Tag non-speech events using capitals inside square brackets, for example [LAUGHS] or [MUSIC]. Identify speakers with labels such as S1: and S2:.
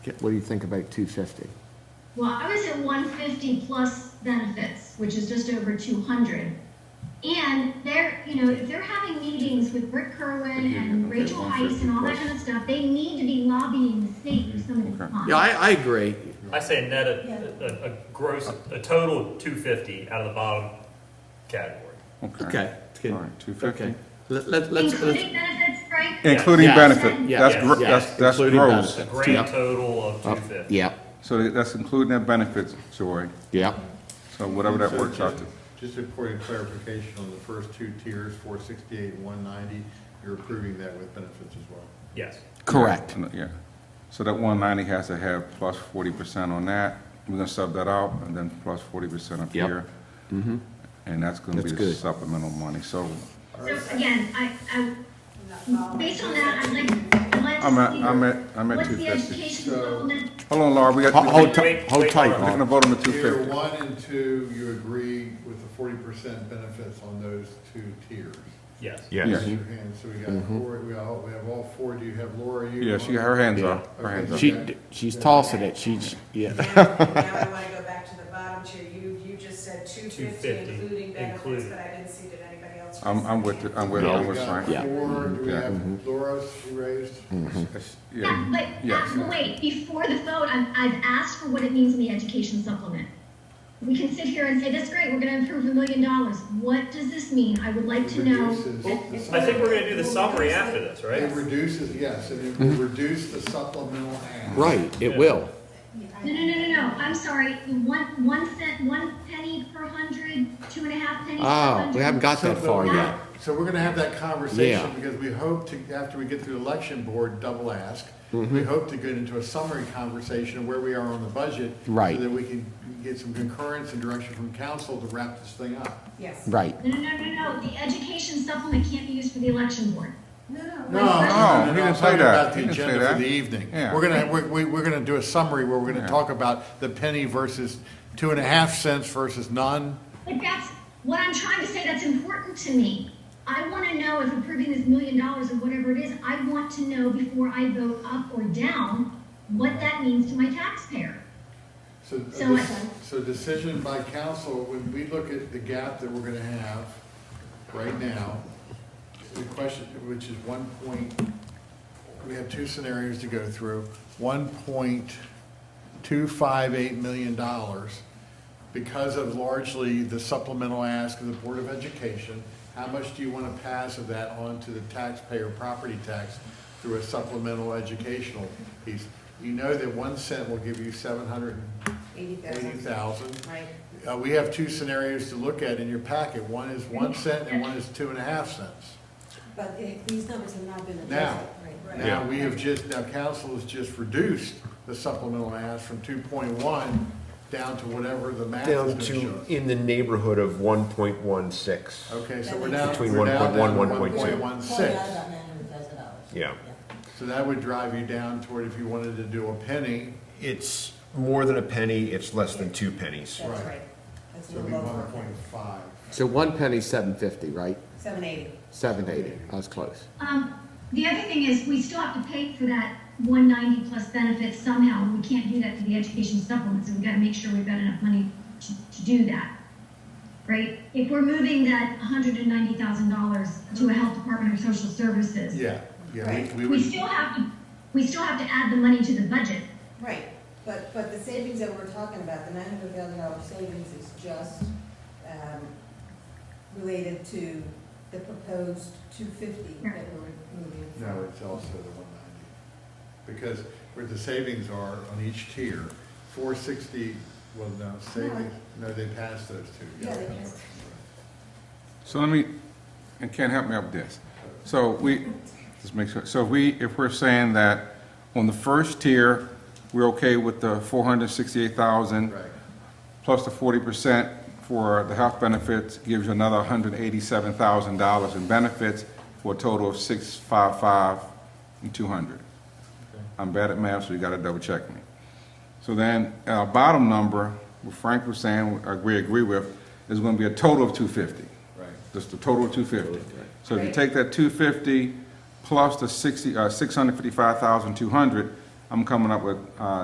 S1: What do you think about 250?
S2: Well, I was at one fifty plus benefits, which is just over two hundred. And they're, you know, if they're having meetings with Rick Kerwin and Rachel Heiss and all that kind of stuff, they need to be lobbying the state for some of these funds.
S3: Yeah, I, I agree.
S4: I say net a, a, a gross, a total of two fifty out of the bottom category.
S3: Okay.
S5: All right, 250.
S3: Okay. Let, let, let's, let's,
S2: Including benefits, Frank?
S5: Including
S3: Yes.
S5: benefit,
S3: Yes.
S5: that's, gro-
S3: Yes.
S5: that's, that's
S3: Including
S5: gross.
S4: A
S3: benefit.
S4: grand total of two
S1: Yep.
S4: fifty.
S1: Yep,
S5: So that's including their benefits, Joy,
S1: yep.
S5: so whatever that works out to.
S6: Just a point of clarification on the first two tiers, four sixty-eight, one ninety, you're approving that with benefits as well.
S4: Yes.
S1: Correct.
S5: Yeah, so that one ninety has to have plus forty percent on that, we're gonna sub that out, and then plus forty percent up
S1: Yep.
S5: here. And that's gonna be
S1: That's
S5: the
S1: good.
S5: supplemental money, so,
S2: So again, I, I, based on
S5: [LAUGHS]
S2: that, I'd like, I'd like to
S5: I'm at,
S2: see.
S5: I'm at, I'm at
S2: What's
S5: two
S2: the
S5: fifty.
S2: education supplement?
S5: Hold on, Laura, we got,
S1: Hold, hold,
S5: we're
S1: ti- hold tight,
S5: gonna
S1: Laura.
S5: vote on the two
S6: Tier
S5: fifty.
S6: one and two, you agree with the forty percent benefits on those two tiers.
S4: Yes.
S5: Yes.
S6: Raise your hand, so we got four, we all, we have all four, do you have Laura, you?
S5: Yeah, she, her hands
S1: Yeah.
S5: up, her hands up.
S1: She, she's tossing it, she's, yeah.
S7: Now now I want to go back to the bottom tier. You, you just said two fifty
S4: 250,
S7: including benefits,
S4: including.
S7: but I didn't see that anybody else.
S5: I'm, I'm with, the- I'm with,
S6: We
S5: I'm with
S6: got
S5: Frank.
S1: Yeah.
S6: four, do we
S5: Yeah.
S6: have Laura, she raised?
S2: Yeah,
S3: mm-hmm.
S5: Yeah,
S2: but,
S5: yes.
S2: uh, but wait, before the vote, I've, I've asked for what it means in the education supplement. We can sit here and say, that's great, we're gonna improve a million dollars. What does this mean? I would like to know.
S6: Reduces the
S4: I think we're gonna do the summary after this,
S6: It
S4: right?
S6: reduces, yes, and it will reduce the supplemental ask.
S3: right, it will.
S2: No, no, no, no, no, I'm sorry, one, one cent, one penny per hundred, two and a half pennies per hundred.
S3: Oh, we haven't got that far yet.
S6: So we're gonna have that conversation,
S3: Yeah.
S6: because we hope to, after we get through the election board double ask, we hope to get into a summary conversation of where we are on the budget.
S3: Right.
S6: So that we can get some concurrence and direction from council to wrap this thing up.
S7: Yes.
S3: Right.
S2: No, no, no, no, no, the education supplement can't be used for the election board.
S7: No, no.
S6: No,
S2: no,
S5: no, he
S6: no,
S5: didn't
S6: I'm
S5: say
S6: talking
S5: that.
S6: about
S5: He
S6: the
S5: didn't say
S6: agenda for
S5: that.
S6: the evening.
S5: Yeah.
S6: We're gonna, we're, we- we're gonna do a summary where we're gonna
S5: Yeah.
S6: talk about the penny versus two and a half cents versus none.
S2: But that's what I'm trying to say. That's important to me. I want to know if approving this million dollars or whatever it is, I want to know before I vote up or down what that means to my taxpayer.
S6: So, a
S2: So
S6: dec-
S2: what?
S6: so decision by council, when we look at the gap that we're gonna have right now, the question, which is one point, we have two scenarios to go through, one point two five eight million dollars because of largely the supplemental ask of the Board of Education, how much do you want to pass of that on to the taxpayer property tax through a supplemental educational piece? You know that one cent will give you seven hundred and
S7: Eighty
S6: eighty
S7: thousand,
S6: thousand.
S7: right?
S6: Uh, we have two scenarios to look at in your packet. One is one cent and one is two and a half cents.
S8: But the- these numbers have not been
S6: Now,
S8: adjusted, right?
S6: now we have just, now council has just reduced the supplemental ask from two point one down to whatever the math is
S9: Down
S6: gonna show
S9: to
S6: us.
S9: in the neighborhood of one point one six.
S6: Okay, so we're now,
S9: Between
S6: we're now
S9: 1.1,
S6: down to one
S9: 1.2.
S6: point one six.
S9: Yeah.
S6: So that would drive you down toward if you wanted to do a penny,
S9: It's more than a penny, it's less than two pennies.
S6: Right.
S7: That's right. That's
S6: so
S7: a
S6: it'd be
S7: little
S6: one
S7: lower.
S6: point five.
S3: So one penny, seven fifty, right?
S7: Seven eighty.
S3: Seven eighty, I was close.
S2: Um, the other thing is we still have to pay for that 190 plus benefits somehow. We can't do that to the education supplement, so we've got to make sure we've got enough money to, to do that. Right? If we're moving that $190,000 to a health department or social services,
S6: Yeah, yeah, we- we
S2: We
S6: would,
S2: still have to, we still have to add the money to the budget.
S8: Right, but, but the savings that we're talking about, the nine hundred thousand dollar savings is just, um, related to the proposed two fifty that we're moving.
S6: no, it's also the one ninety. Because where the savings are on each tier, four sixty, well, no, savings, no, they passed those two.
S8: Yeah, they
S6: that's
S8: passed.
S6: right.
S5: So let me, and Ken, help me out with this. So we, just make sure, so if we, if we're saying that on the first tier, we're okay with the four hundred sixty-eight thousand
S6: Right,
S5: plus the forty percent for the health benefits, gives you another hundred eighty-seven thousand dollars in benefits for a total of six five five and two hundred. I'm bad at math, so you gotta double check me. So then, our bottom number, what Frank was saying, I agree, agree with, is gonna be a total of two fifty.
S6: right.
S5: Just the total of two fifty. So if you take that two fifty plus the sixty, uh, six hundred fifty-five thousand two hundred, I'm coming up with, uh,